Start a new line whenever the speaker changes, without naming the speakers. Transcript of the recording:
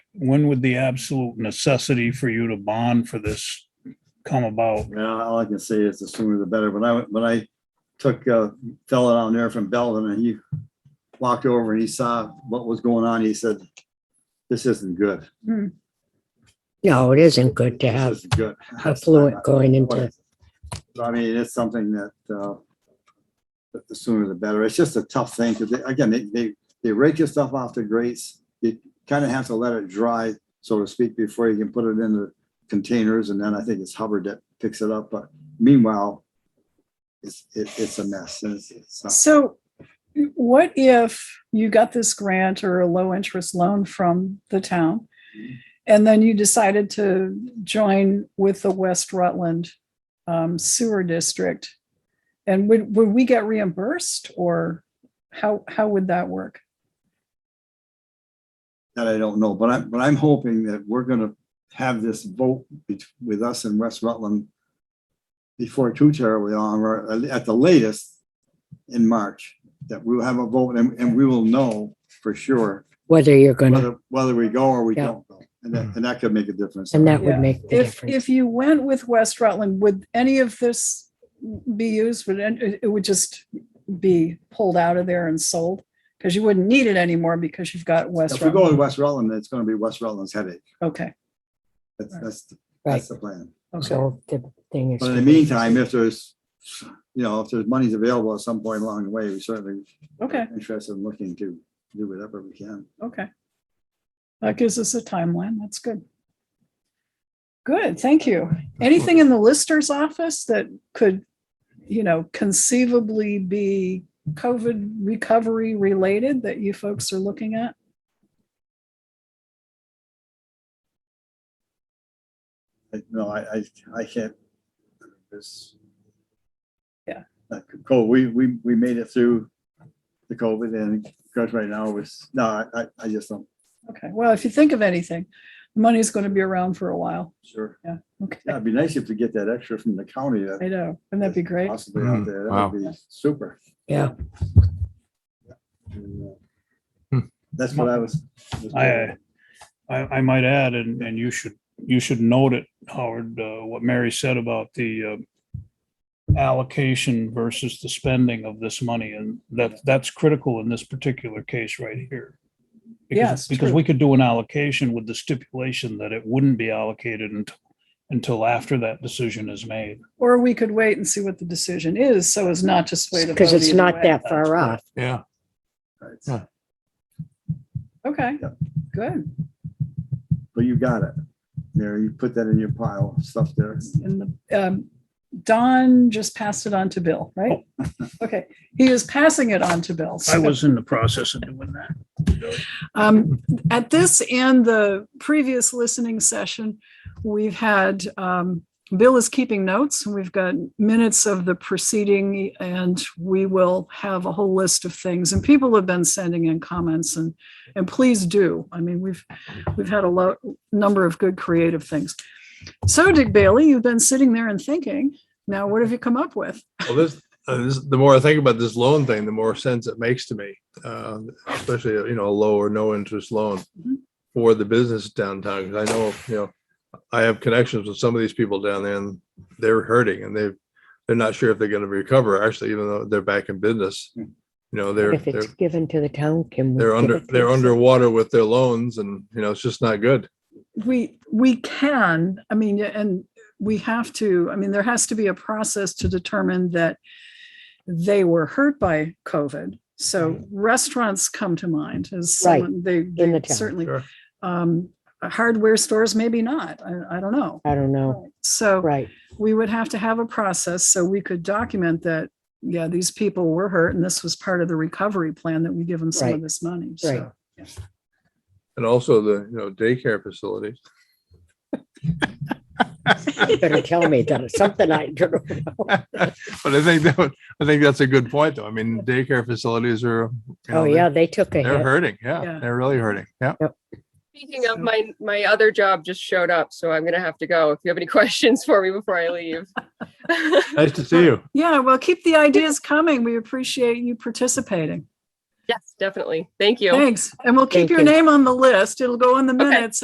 when would the absolute necessity for you to bond for this come about?
Well, all I can say is the sooner the better. When I, when I took a fella down there from Belden and he walked over and he saw what was going on, he said, this isn't good.
No, it isn't good to
This
have
isn't good.
affluent going into,
So, I mean, it's something that, uh, that the sooner the better. It's just a tough thing because again, they, they, they rake your stuff off the grates. You kind of have to let it dry, so to speak, before you can put it in the containers. And then I think it's Hubbard that picks it up. But meanwhile, it's, it, it's a mess and it's, it's not.
So what if you got this grant or a low interest loan from the town?
Mm-hmm.
And then you decided to join with the West Rutland um, Sewer District? And would, would we get reimbursed or how, how would that work?
That I don't know, but I'm, but I'm hoping that we're gonna have this vote bet- with us and West Rutland before too terribly long, or at the latest in March, that we'll have a vote and, and we will know for sure
whether you're gonna,
whether, whether we go or we
Yeah. Mm.
don't go. And that, and that could make a difference.
and that
Yeah.
would make the
If,
difference.
if you went with West Rutland, would any of this be used? Would, it it would just be pulled out of there and sold? Because you wouldn't need it anymore because you've got West
If we go
Rutland.
to West Rutland, it's gonna be West Rutland's headache.
Okay.
That's, that's, the-
Right,
that's the plan.
okay.
so the thing is.
But in the meantime, if there's, you know, if there's money's available at some point along the way, we certainly are
Okay,
interested in looking to do whatever we can.
okay. That gives us a timeline. That's good. Good, thank you. Anything in the lister's office that could, you know, conceivably be COVID recovery related that you folks are looking at?
I- No, I, I, I can't. This.
Yeah.
Like, Cool, we, we, we made it through the COVID and because right now was, no, I- I, I just don't,
Okay, well, if you think of anything, money's going to be around for a while.
sure.
Okay,
Yeah, It'd be nice if we get that extra from the county that
I know. Wouldn't that be great?
possibly out
Mm,
there.
wow.
That would be super.
Yeah,
And, uh,
Hmm.
That's what I was. was
I, I, I might add, and, and you should, you should note it, Howard, uh, what Mary said about the uh, allocation versus the spending of this money, and that, that's critical in this particular case right here. Because-
Yes,
Because
true.
we could do an allocation with the stipulation that it wouldn't be allocated until, until after that decision is made.
Or we could wait and see what the decision is so as not to sway the vote.
because it's
either
not
way.
that far off.
Yeah,
right.
Okay,
Yep.
good.
But you got it. Mary, you put that in your pile of stuff there.
And the, um, Don just passed it on to Bill, right? Okay, he is passing it on to Bill.
I
so-
was in the process of doing that.
Um, at this and the previous listening session, we've had, um, Bill is keeping notes. and We've got minutes of the proceeding and we will have a whole list of things. And people have been sending in comments and, and please do. I mean, we've, we've had a lot, number of good creative things. So Dick Bailey, you've been sitting there and thinking, now what have you come up with?
well, this, uh, this, the more I think about this loan thing, the more sense it makes to me. Uh, especially, you know, a low or no interest loan
Mhm.
Mm-hmm.
for the business downtown. 'Cause I know, you know, I have connections with some of these people down there and they're hurting and they've, they're not sure if they're gonna recover, actually, even though they're back in business.
Hmm.
You know, they're,
If
they're,
it's given to the town, can we?
they're
give
under,
it to
they're
the-
underwater with their loans and, you know, it's just not good.
We, we can, I mean, and we have to, I mean, there has to be a process to determine that they were hurt by COVID. So restaurants come to mind as
Mm-hmm. Right,
someone, they
in the
they
town.
certainly,
Sure.
um, hardware stores, maybe not. I, I don't know.
I don't know.
So
Oh. Right,
we would have to have a process so we could document that, yeah, these people were hurt and this was part of the recovery plan that we give them some of
Right,
this money.
right.
So
And also the, you know, daycare facilities.
Better tell me that it's something I don't know. Oh,
but I think that would, I think that's a good point, though. I mean, daycare facilities are. you know,
Oh, yeah, they took a
They're
hit.
hurting. Yeah,
Yeah.
They're really hurting. Yeah.
Speaking of my, my other job just showed up, so I'm gonna have to go. If you have any questions for me before I leave.
Nice to see you.
Yeah, well, keep the ideas coming. We appreciate you participating.
Yes, definitely. Thank you.
Thanks. And we'll keep
Thank
your
you.
name on the list. It'll go in the
Okay.
minutes